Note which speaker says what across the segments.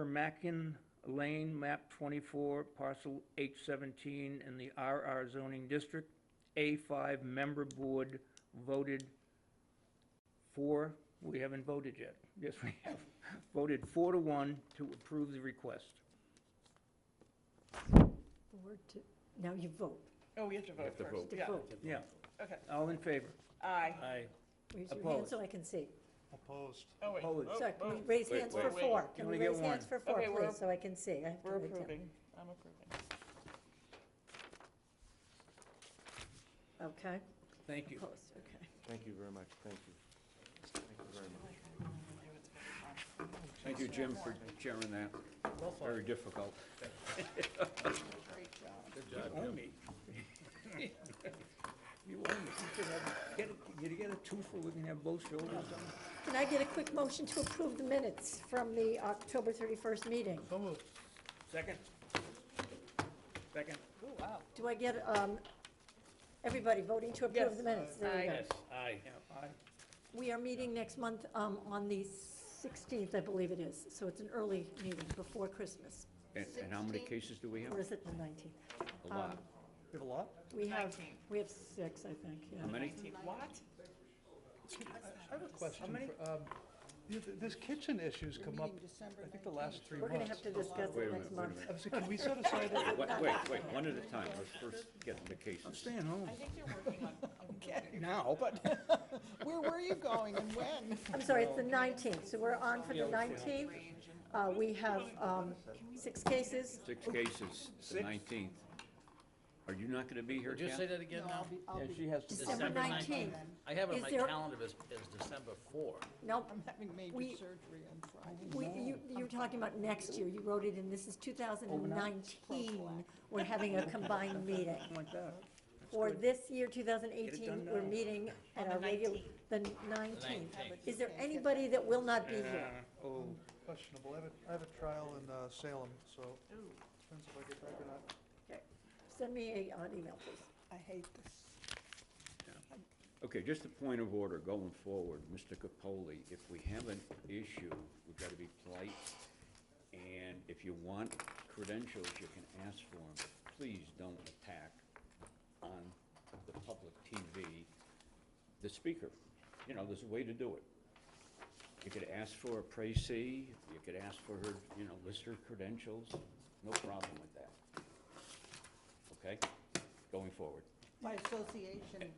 Speaker 1: Permacan Lane, map twenty-four, parcel H seventeen, in the RR zoning district. A five member board voted four, we haven't voted yet, yes, we have, voted four to one to approve the request.
Speaker 2: Four to, now you vote.
Speaker 3: Oh, we have to vote
Speaker 4: have to
Speaker 3: first.
Speaker 4: vote.
Speaker 2: To
Speaker 3: Yeah,
Speaker 2: vote.
Speaker 1: Yeah,
Speaker 3: okay.
Speaker 1: all in favor?
Speaker 3: Aye.
Speaker 1: Aye.
Speaker 2: Raise your hand
Speaker 1: Opposed.
Speaker 2: so I can see.
Speaker 5: Opposed.
Speaker 3: Oh, wait.
Speaker 1: Opposed.
Speaker 3: Oh,
Speaker 2: So, can we
Speaker 3: oh,
Speaker 2: raise
Speaker 4: Wait,
Speaker 2: hands
Speaker 4: wait,
Speaker 2: for
Speaker 3: wait.
Speaker 2: four?
Speaker 1: You
Speaker 2: Can
Speaker 1: only
Speaker 2: we
Speaker 1: get
Speaker 2: raise hands for
Speaker 1: one.
Speaker 2: four,
Speaker 3: Okay, we're
Speaker 2: please,
Speaker 3: up-
Speaker 2: so I can see? I have to
Speaker 3: We're
Speaker 2: write down.
Speaker 3: approving. I'm approving.
Speaker 2: Okay,
Speaker 1: Thank you.
Speaker 2: opposed, okay.
Speaker 4: Thank you very much, thank you. Thank you very much. Thank you, Jim, for chairing that. Very difficult.
Speaker 3: Great job.
Speaker 1: You owe me. You owe me. You should have- Get a, you get a twofer, we can have both shoulders on.
Speaker 2: Can I get a quick motion to approve the minutes from the October 31st meeting?
Speaker 5: So moved.
Speaker 1: Second? Second?
Speaker 3: Ooh, wow.
Speaker 2: Do I get, um, everybody voting to approve the minutes? There you go.
Speaker 1: Aye. Yeah, aye.
Speaker 2: We are meeting next month, um, on the 16th, I believe it is, so it's an early meeting before Christmas,
Speaker 4: And, and how many cases do we have?
Speaker 2: or is it the 19th?
Speaker 4: A lot.
Speaker 1: You have a lot?
Speaker 2: We have,
Speaker 3: 19th.
Speaker 2: we have six, I think, yeah.
Speaker 4: How many?
Speaker 3: What?
Speaker 5: I have a question.
Speaker 1: many?
Speaker 5: for, um, th- th- This kitchen issue's come up, I think, the last three
Speaker 2: We're
Speaker 5: months.
Speaker 2: gonna have to discuss
Speaker 4: Wait a
Speaker 2: it next
Speaker 4: minute, wait a
Speaker 2: month.
Speaker 4: minute.
Speaker 5: I'm sorry, Can we set aside,
Speaker 4: Wait, wait, wait, one at a time, let's first get the
Speaker 1: I'm
Speaker 4: cases.
Speaker 1: staying home
Speaker 3: I think they're working on, okay.
Speaker 1: now, but.
Speaker 3: Where were you going and when?
Speaker 2: I'm sorry, it's the 19th, so we're on for the 19th. Uh, we have, um, six cases.
Speaker 4: Six cases, the nineteenth. Are you not gonna be here,
Speaker 6: Would you say
Speaker 4: Ken?
Speaker 6: that again now?
Speaker 1: Yeah, she has to.
Speaker 2: December
Speaker 6: December
Speaker 2: 19th.
Speaker 6: I have
Speaker 2: Is
Speaker 6: it on my
Speaker 2: there-
Speaker 6: calendar as, as December four.
Speaker 2: Nope,
Speaker 3: I'm having major
Speaker 2: We-
Speaker 3: surgery on Friday.
Speaker 2: we, you, you're talking about next year. You wrote it in, this is
Speaker 3: Oh,
Speaker 2: 2019. We're having a combined meeting.
Speaker 1: Something like that.
Speaker 2: For this year,
Speaker 1: Get it done
Speaker 2: 2018, we're
Speaker 1: now.
Speaker 2: meeting at our regular, the 19th.
Speaker 6: 19th.
Speaker 2: Is there anybody that will not be here?
Speaker 1: Uh, Oh,
Speaker 5: questionable, I have a, I have a trial in uh, Salem, so depends if I get back or not.
Speaker 2: Okay. Send me a- an email, please.
Speaker 3: I hate this.
Speaker 4: Okay, just a point of order going forward, Mr. Capoli, if we have an issue, we've gotta be polite. And if you want credentials, you can ask for them. Please don't attack on the public TV, the speaker. You know, there's a way to do it. You could ask for a précis, you could ask for her, you know, list her credentials, no problem with that. Okay? Going forward,
Speaker 7: By association,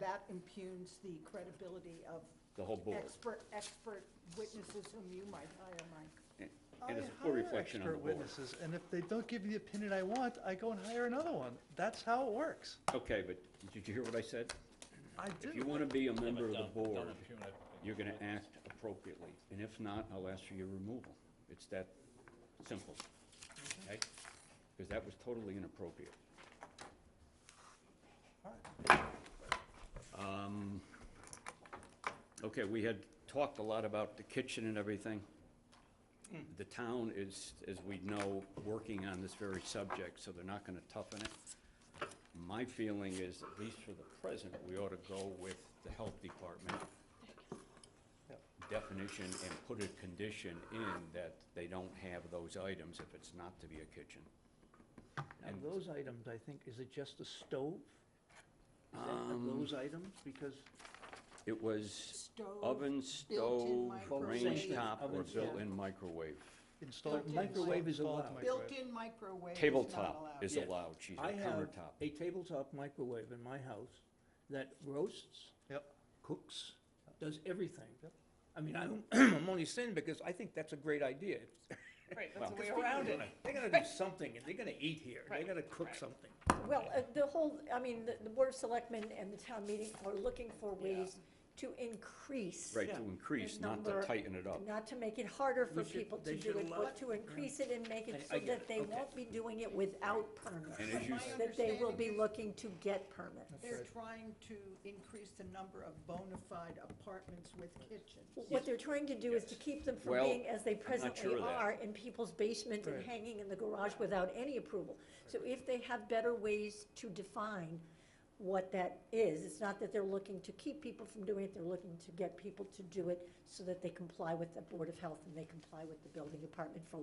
Speaker 7: that impugns the credibility of
Speaker 4: the whole board.
Speaker 7: expert, expert witnesses whom you might hire, Mike.
Speaker 4: And
Speaker 5: I
Speaker 4: and it's a poor
Speaker 5: hire
Speaker 4: reflection on the
Speaker 5: expert
Speaker 4: board.
Speaker 5: witnesses, And if they don't give me the opinion I want, I go and hire another one. That's how it works.
Speaker 4: Okay, but did you hear what I said?
Speaker 5: I
Speaker 4: If you
Speaker 5: do.
Speaker 4: want to be a member
Speaker 6: uh,
Speaker 4: of the board, you're going to act appropriately, and if not, I'll ask for your removal. It's that simple, okay? Because that was totally inappropriate. Um, Okay, we had talked a lot about the kitchen and everything. The town is, as we know, working on this very subject, so they're not going to toughen it. My feeling is, at least for the present, we ought to go with the health department definition and put a condition in that they don't have those items if it's not to be a kitchen.
Speaker 1: now those items, I think, is it just the stove? Is that
Speaker 4: Um,
Speaker 1: those items? Because
Speaker 4: It was
Speaker 7: Stove,
Speaker 4: oven, stove,
Speaker 7: microwave.
Speaker 4: range top, or
Speaker 1: Oven, yeah.
Speaker 4: built-in microwave.
Speaker 5: Installed
Speaker 1: Microwave is
Speaker 5: installed
Speaker 1: allowed.
Speaker 5: microwave.
Speaker 7: Built-in microwave is not
Speaker 4: Tabletop
Speaker 7: allowed.
Speaker 4: is
Speaker 1: Yes.
Speaker 4: allowed, she's a
Speaker 1: I have
Speaker 4: countertop.
Speaker 1: a tabletop microwave in my house that roasts,
Speaker 5: Yep.
Speaker 1: cooks, does everything. I mean, I'm, I'm only saying because I think that's a great idea.
Speaker 3: Right, that's the way
Speaker 1: People
Speaker 3: around it.
Speaker 1: wanna- They gotta do something, and they gotta eat here, they
Speaker 3: Right,
Speaker 1: gotta cook something.
Speaker 2: Well, uh, the whole, I mean, the- the Board of Selectmen and the town meeting are looking for ways to increase.
Speaker 4: Right,
Speaker 1: Yeah.
Speaker 4: to increase, not to
Speaker 2: number-
Speaker 4: tighten it up.
Speaker 2: Not to make it harder for
Speaker 1: We should-
Speaker 2: people to
Speaker 1: they
Speaker 2: do
Speaker 1: should
Speaker 2: it,
Speaker 1: allow-
Speaker 2: but to increase it and make
Speaker 1: I-
Speaker 2: it
Speaker 1: I
Speaker 2: so
Speaker 1: get it,
Speaker 2: that they
Speaker 1: okay.
Speaker 2: won't be doing it without permits.
Speaker 4: And as you, s-
Speaker 7: My
Speaker 2: That they will be
Speaker 7: understanding is
Speaker 2: looking to get permits.
Speaker 7: They're trying to increase the number of bona fide apartments with kitchens.
Speaker 2: What they're trying to do is to keep them from
Speaker 4: Well,
Speaker 2: being as they
Speaker 4: sure
Speaker 2: presently
Speaker 4: of that.
Speaker 2: are in people's basements and
Speaker 5: Right.
Speaker 2: hanging in the garage without any approval. So if they have better ways to define what that is, it's not that they're looking to keep people from doing it, they're looking to get people to do it so that they comply with the Board of Health and they comply with the building department for